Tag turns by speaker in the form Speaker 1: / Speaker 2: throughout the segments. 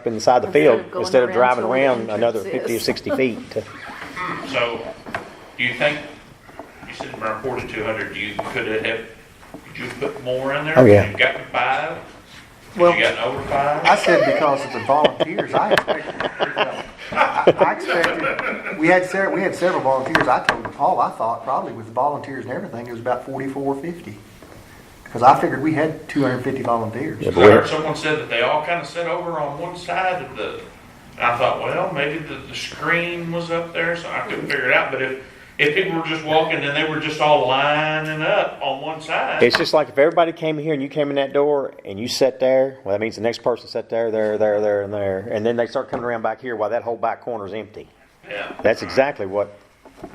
Speaker 1: up inside the
Speaker 2: Instead
Speaker 1: field
Speaker 2: of going
Speaker 1: instead of
Speaker 2: around
Speaker 1: driving
Speaker 2: to where the
Speaker 1: around another
Speaker 2: entrance
Speaker 1: 50 or
Speaker 2: is.
Speaker 1: 60 feet. to-
Speaker 3: So, do you think, you said it reported two hundred, you could have, could you put more in there?
Speaker 1: Oh, yeah.
Speaker 3: You got to five?
Speaker 4: Well-
Speaker 3: You got over five?
Speaker 4: I said because of the volunteers, I expected, I I expected, we had several, we had several volunteers, I told Paul, I thought probably with the volunteers and everything, it was about forty-four fifty. Because I figured we had two hundred and fifty volunteers.
Speaker 1: Yeah,
Speaker 3: I heard
Speaker 1: but
Speaker 3: someone said that they all kind of sat over on one side of the, and I thought, well, maybe the, the screen was up there, so I couldn't figure it out, but if, if people were just walking and they were just all lining up on one
Speaker 1: we-
Speaker 3: side,
Speaker 1: It's just like if everybody came here and you came in that door and you sat there, well, that means the next person sat there, there, there, there, and there. And then they start coming around back here while that whole back corner's empty.
Speaker 3: yeah.
Speaker 1: That's exactly what,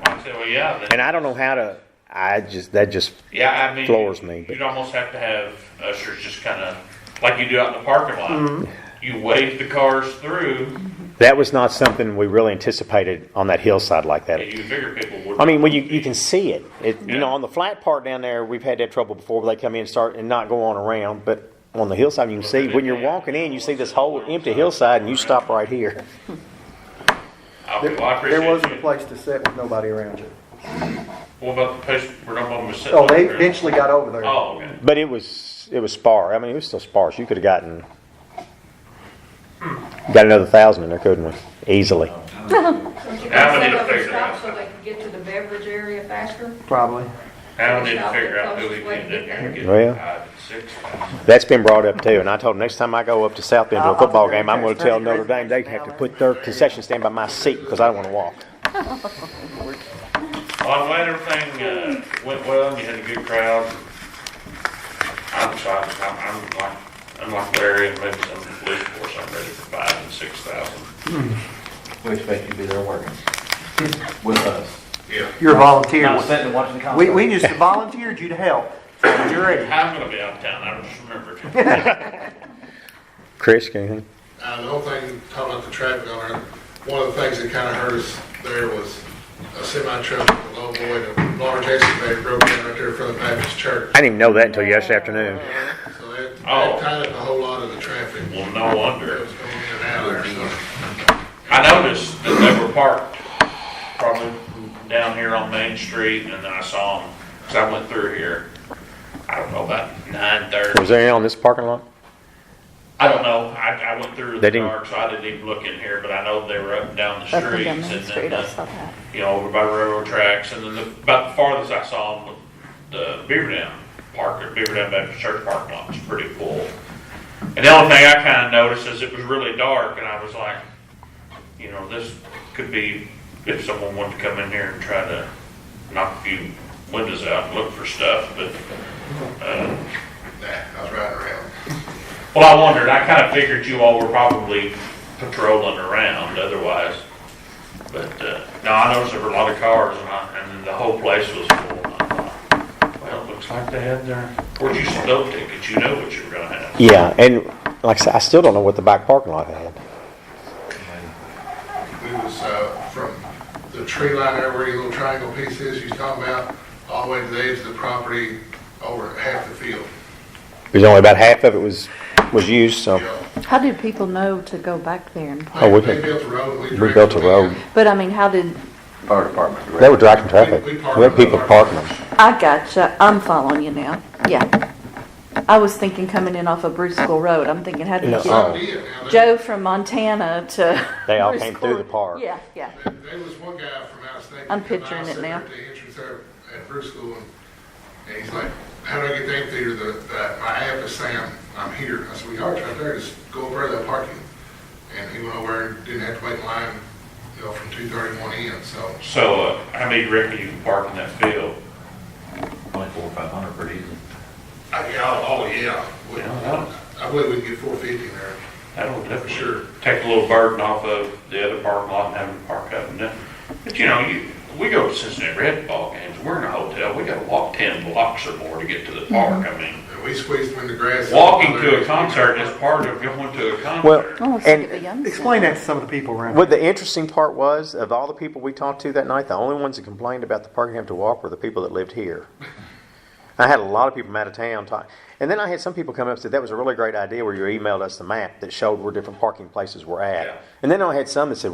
Speaker 3: I said, well, yeah, then-
Speaker 1: and I don't know how to, I just, that just,
Speaker 3: Yeah, I mean,
Speaker 1: Floors me, but-
Speaker 3: You'd almost have to have ushers just kind of like you do out in the parking lot.
Speaker 4: Mm-hmm.
Speaker 3: You wave the cars through,
Speaker 1: that was not something we really anticipated on that hillside like that.
Speaker 3: and you figure people would.
Speaker 1: I mean, well, you, you can see it. it You know,
Speaker 3: Yeah.
Speaker 1: on the flat part down there, we've had that trouble before where they come in and start and not go on around. But on the hillside, you can see when you're walking in, you see this whole empty hillside and you stop right here.
Speaker 3: okay, well, I appreciate
Speaker 4: There wasn't a
Speaker 3: you.
Speaker 4: place to sit with nobody around you.
Speaker 3: What about the place where no one was sitting?
Speaker 4: Oh, they
Speaker 3: over there?
Speaker 4: eventually got over there.
Speaker 3: Oh, okay.
Speaker 1: But it was it was sparse. I mean, it was still sparse. You could have gotten got another thousand in there, couldn't we? Easily.
Speaker 3: Now we need to
Speaker 5: Set up a
Speaker 3: figure
Speaker 5: stop
Speaker 3: out.
Speaker 5: So they can get to the beverage area faster.
Speaker 4: Probably.
Speaker 3: Now we need to figure out who we can get there and get
Speaker 1: Well.
Speaker 3: five and six.
Speaker 1: That's been brought up too. And I told them next time I go up to South Bend to
Speaker 4: I'll-
Speaker 1: a
Speaker 4: I'll
Speaker 1: football
Speaker 4: take that
Speaker 1: game, I'm going to
Speaker 4: text
Speaker 1: tell
Speaker 4: message
Speaker 1: Notre
Speaker 4: right
Speaker 1: Dame they
Speaker 4: now,
Speaker 1: have to
Speaker 4: man.
Speaker 1: put their concession stand by my seat because I don't want to walk.
Speaker 3: Well, I'm glad everything uh, went well. and You had a good crowd. I'm excited. I'm, I'm like, I'm like Larry and maybe some of the police force. I'm ready for five and six thousand.
Speaker 6: We expect you to be there working with us.
Speaker 3: Yeah.
Speaker 4: You're a volunteer.
Speaker 6: Not sitting and watching the concert.
Speaker 4: We, we just volunteered you to help. So You're ready.
Speaker 3: I'm gonna be out of town, I just remembered.
Speaker 1: Chris, anything?
Speaker 7: Uh, the whole thing, talking about the traffic on there, one of the things that kind of hurt us there was a semi truck, a low boy, and a large excavator broke in right there in front of the Baptist church.
Speaker 1: I didn't even know that until yesterday afternoon.
Speaker 7: So that,
Speaker 3: Oh.
Speaker 7: that tied up a whole lot of the traffic
Speaker 3: Well, no
Speaker 7: that
Speaker 3: wonder.
Speaker 7: was going in and out of there, so.
Speaker 3: I noticed that they were parked probably down here on Main Street and then I saw them, cause I went through here, I don't know, about nine
Speaker 1: Was
Speaker 3: thirty.
Speaker 1: there any on this parking lot?
Speaker 3: I don't know, I, I went through
Speaker 1: They
Speaker 3: the
Speaker 1: didn't-
Speaker 3: dark, so I didn't even look in here, but I know they were up and down the
Speaker 2: Up and
Speaker 3: streets
Speaker 2: down
Speaker 3: and
Speaker 2: Main
Speaker 3: then,
Speaker 2: Street, I saw
Speaker 3: the-
Speaker 2: that.
Speaker 3: you know, over by railroad tracks and then the, about the farthest I saw them was the Beaver Dam Park, or Beaver Dam Baptist Church parking lot, it's pretty full. And the only thing I kind of noticed is it was really dark, and I was like, you know, this could be if someone wanted to come in here and try to knock a few windows out and look for stuff. But, uh,
Speaker 7: Nah, I was riding around.
Speaker 3: well, I wondered, I kind of figured you all were probably patrolling around otherwise. But, uh, no, I noticed there were a lot of cars, and, I, and the whole place was full. and I thought, Well, it looks like they had their, where'd you snow tickets? You know what you were going to have.
Speaker 1: Yeah, and like I said, I still don't know what the back parking lot had.
Speaker 7: We was, uh, from the tree line there where your little triangle piece is, you talking about, all the way to the edge of the property, over half the field,
Speaker 1: There's only about half of it was, was used, so.
Speaker 7: you know.
Speaker 2: How did people know to go back there? and-
Speaker 1: Oh, we
Speaker 7: They
Speaker 1: could-
Speaker 7: built a road, we
Speaker 1: We built a
Speaker 7: directed
Speaker 1: road.
Speaker 7: them.
Speaker 2: But I mean, how did,
Speaker 6: Fire department.
Speaker 1: They were directing traffic.
Speaker 7: We-
Speaker 1: We
Speaker 7: we park
Speaker 1: had
Speaker 7: on
Speaker 1: people
Speaker 7: our-
Speaker 1: parking them.
Speaker 2: I gotcha, I'm following you now, yeah. I was thinking coming in off of Bruce School Road, I'm thinking, how did
Speaker 1: No.
Speaker 2: you get
Speaker 1: Oh.
Speaker 7: Some did, now they-
Speaker 2: Joe from Montana to?
Speaker 1: They all
Speaker 2: Bruce
Speaker 1: came through
Speaker 2: School?
Speaker 1: the park.
Speaker 2: Yeah, yeah.
Speaker 7: There was one guy from out of state.
Speaker 2: I'm
Speaker 7: that came
Speaker 2: picturing
Speaker 7: out,
Speaker 2: it
Speaker 7: sat
Speaker 2: now.
Speaker 7: At the entrance there at Bruce School, and, and he's like, how do I get the amphitheater, the, the, my app is saying I'm, I'm here. I said, we are right there, just go over there, they'll park you. And he went over and didn't have to wait in line, you know, from two thirty-one in, so.
Speaker 3: So, uh, how many reckon you can park in that field?
Speaker 6: Only four or five hundred pretty easy.
Speaker 7: I, yeah, oh, yeah. We-
Speaker 3: Yeah, that'll-
Speaker 7: I believe we can get four fifty in there.
Speaker 3: That'll definitely
Speaker 7: Sure.
Speaker 3: take a little burden off of the other parking lot and having to park up and down. But you know, you, we go to Cincinnati Red ball games, we're in a hotel, we gotta walk ten blocks or more to get to the park. I mean,
Speaker 7: And we squeezed them in the grass.
Speaker 3: walking to a concert is part of going to a
Speaker 2: Oh,
Speaker 3: concert.
Speaker 2: I
Speaker 1: Well,
Speaker 2: was thinking of a
Speaker 1: and
Speaker 2: young
Speaker 4: Explain
Speaker 2: center.
Speaker 4: that to some of the people around.
Speaker 1: what the interesting part was, of all the people we talked to that night, the only ones that complained about the parking having to walk were the people that lived here. I had a lot of people from out of town talk, And then I had some people come up and said, that was a really great idea where you emailed us the map that showed where different parking places were
Speaker 3: Yeah.
Speaker 1: at. And then I had some that said,